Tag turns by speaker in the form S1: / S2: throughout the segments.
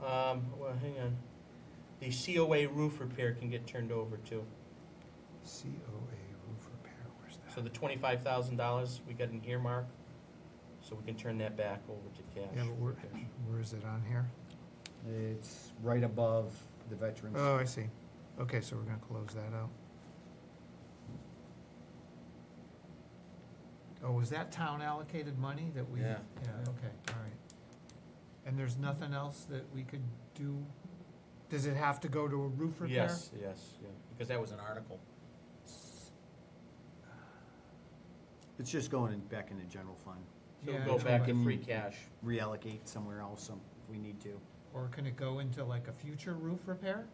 S1: Um, well, hang on. The COA roof repair can get turned over too.
S2: COA roof repair, where's
S1: So the
S2: that?
S1: twenty-five thousand dollars we got an earmark, so we can turn that back over to cash.
S2: Yeah, but where, where is it on here?
S3: It's right above the veterans.
S2: Oh, I see. Okay, so we're gonna close that out. Oh, was that town allocated money that we?
S1: Yeah.
S2: Yeah, okay, all right. And there's nothing else that we could do? Does it have to go to a roof repair?
S1: Yes, yes, yeah, because that was an article.
S3: It's just going in- back in the general fund,
S1: So
S2: Yeah,
S1: we'll go
S2: true.
S1: back to
S3: Mm.
S1: free cash.
S3: reallocate somewhere else some- if we need to.
S2: Or can it go into like a future roof repair?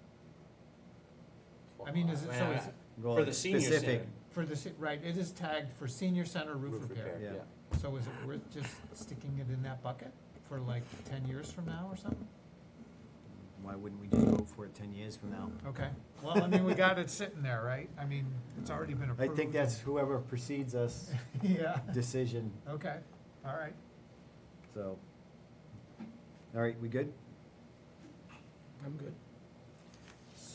S2: I mean, is it, so is, it-
S3: Go
S1: For
S3: like
S1: the senior
S3: specific.
S1: center.
S2: for the, se- right, it is tagged for senior center roof repair.
S3: repair,
S2: So is it worth just sticking it in that bucket for like ten years from now or something?
S3: Why wouldn't we just vote for it ten years from now?
S2: Okay, well, I mean, we got it sitting there, right? I mean, it's already been
S3: I
S2: approved.
S3: think that's whoever precedes us
S2: Yeah,
S3: decision,
S2: okay, all right.
S3: so. All right, we good?
S1: I'm good.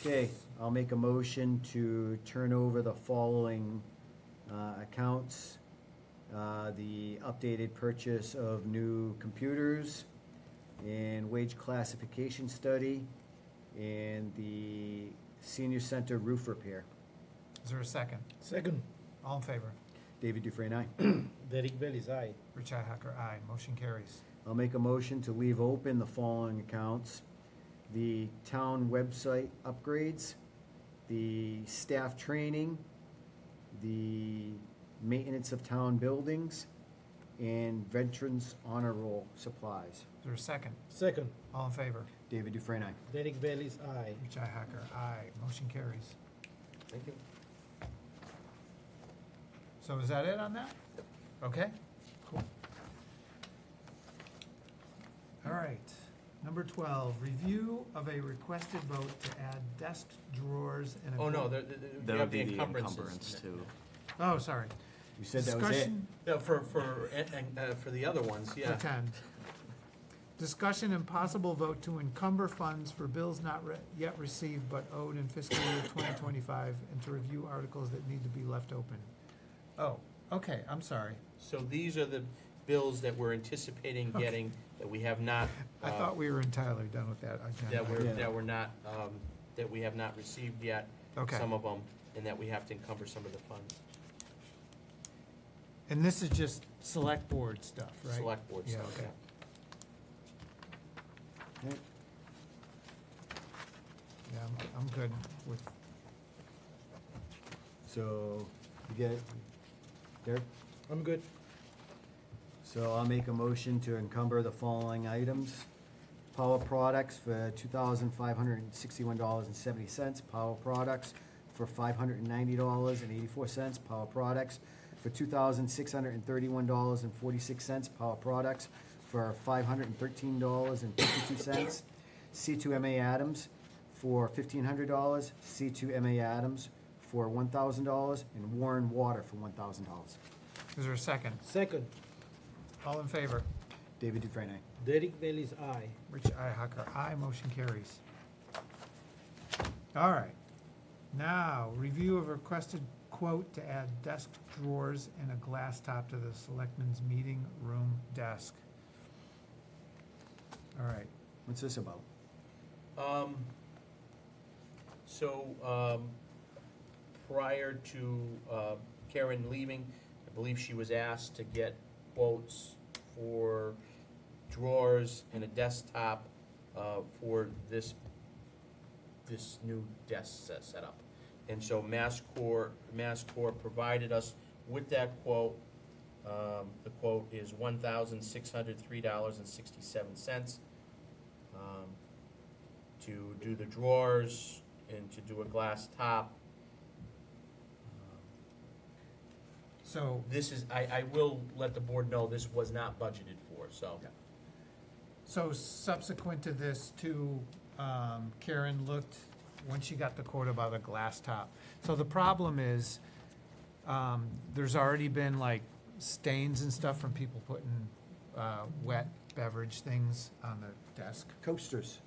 S3: Okay, I'll make a motion to turn over the following uh, accounts. Uh, The updated purchase of new computers and wage classification study and the senior center roof repair.
S2: Is there a second?
S4: Second.
S2: All in favor?
S3: David Dufresne, aye.
S4: Derek Bell is aye.
S2: Richi Hacker, aye. Motion carries.
S3: I'll make a motion to leave open the following accounts. The town website upgrades, the staff training, the maintenance of town buildings, and veterans honor roll supplies.
S2: Is there a second?
S4: Second.
S2: All in favor?
S3: David Dufresne, aye.
S4: Derek Bell is aye.
S2: Richi Hacker, aye. Motion carries.
S1: Thank you.
S2: So is that it on that? Okay, cool. All right, number twelve, review of a requested vote to add desk drawers and a.
S1: Oh, no,
S2: bed-
S1: there, there- there, you have the encumbrances.
S2: Oh, sorry.
S3: You said that was it?
S2: Discussion-
S1: No, for, for, and, and, uh, for the other ones, yeah.
S2: pretend. Discussion and possible vote to encumber funds for bills not re- yet received but owed in fiscal year twenty twenty-five and to review articles that need to be left open. Oh, okay, I'm sorry.
S1: So these are the bills that we're anticipating
S2: Okay.
S1: getting that we have not.
S2: I
S1: uh,
S2: thought we were entirely done with that
S1: That we're,
S2: agenda.
S3: Yeah.
S1: that we're not, um, that we have not received yet.
S2: Okay,
S1: Some of them, and that we have to encumber some of the funds,
S2: and this is just select board stuff, right?
S1: select board
S2: Yeah,
S1: stuff.
S2: okay.
S3: Alright,
S2: Yeah, I'm, I'm good with,
S3: So, you get it? Derek?
S4: I'm good.
S3: So I'll make a motion to encumber the following items. Power products for two thousand five hundred and sixty-one dollars and seventy cents. Power products for five hundred and ninety dollars and eighty-four cents. Power products for two thousand six hundred and thirty-one dollars and forty-six cents. Power products for five hundred and thirteen dollars and fifty-two cents. C two MA Adams for fifteen hundred dollars. C two MA Adams for one thousand dollars. And Warren Water for one thousand dollars.
S2: is there a second?
S4: Second.
S2: All in favor?
S3: David Dufresne. aye.
S4: Derek Bell is aye.
S2: Rich Ihacker, aye, motion carries. All right, now, review of requested quote to add desk drawers and a glass top to the selectmen's meeting room desk. All right,
S3: What's this about?
S1: Um, so, um, prior to, uh, Karen leaving, I believe she was asked to get quotes for drawers and a desktop, uh, for this, this new desk set, setup. And so MassCore, MassCore provided us with that quote. Um, the quote is one thousand six hundred three dollars and sixty-seven cents. Um, to do the drawers and to do a glass top.
S2: so,
S1: This is, I, I will let the board know this was not budgeted for, so.
S2: Yeah. so subsequent to this too, um, Karen looked, when she got the quote about a glass top. So the problem is, um, there's already been like stains and stuff from people putting, uh, wet beverage things on the desk.
S3: Coasters.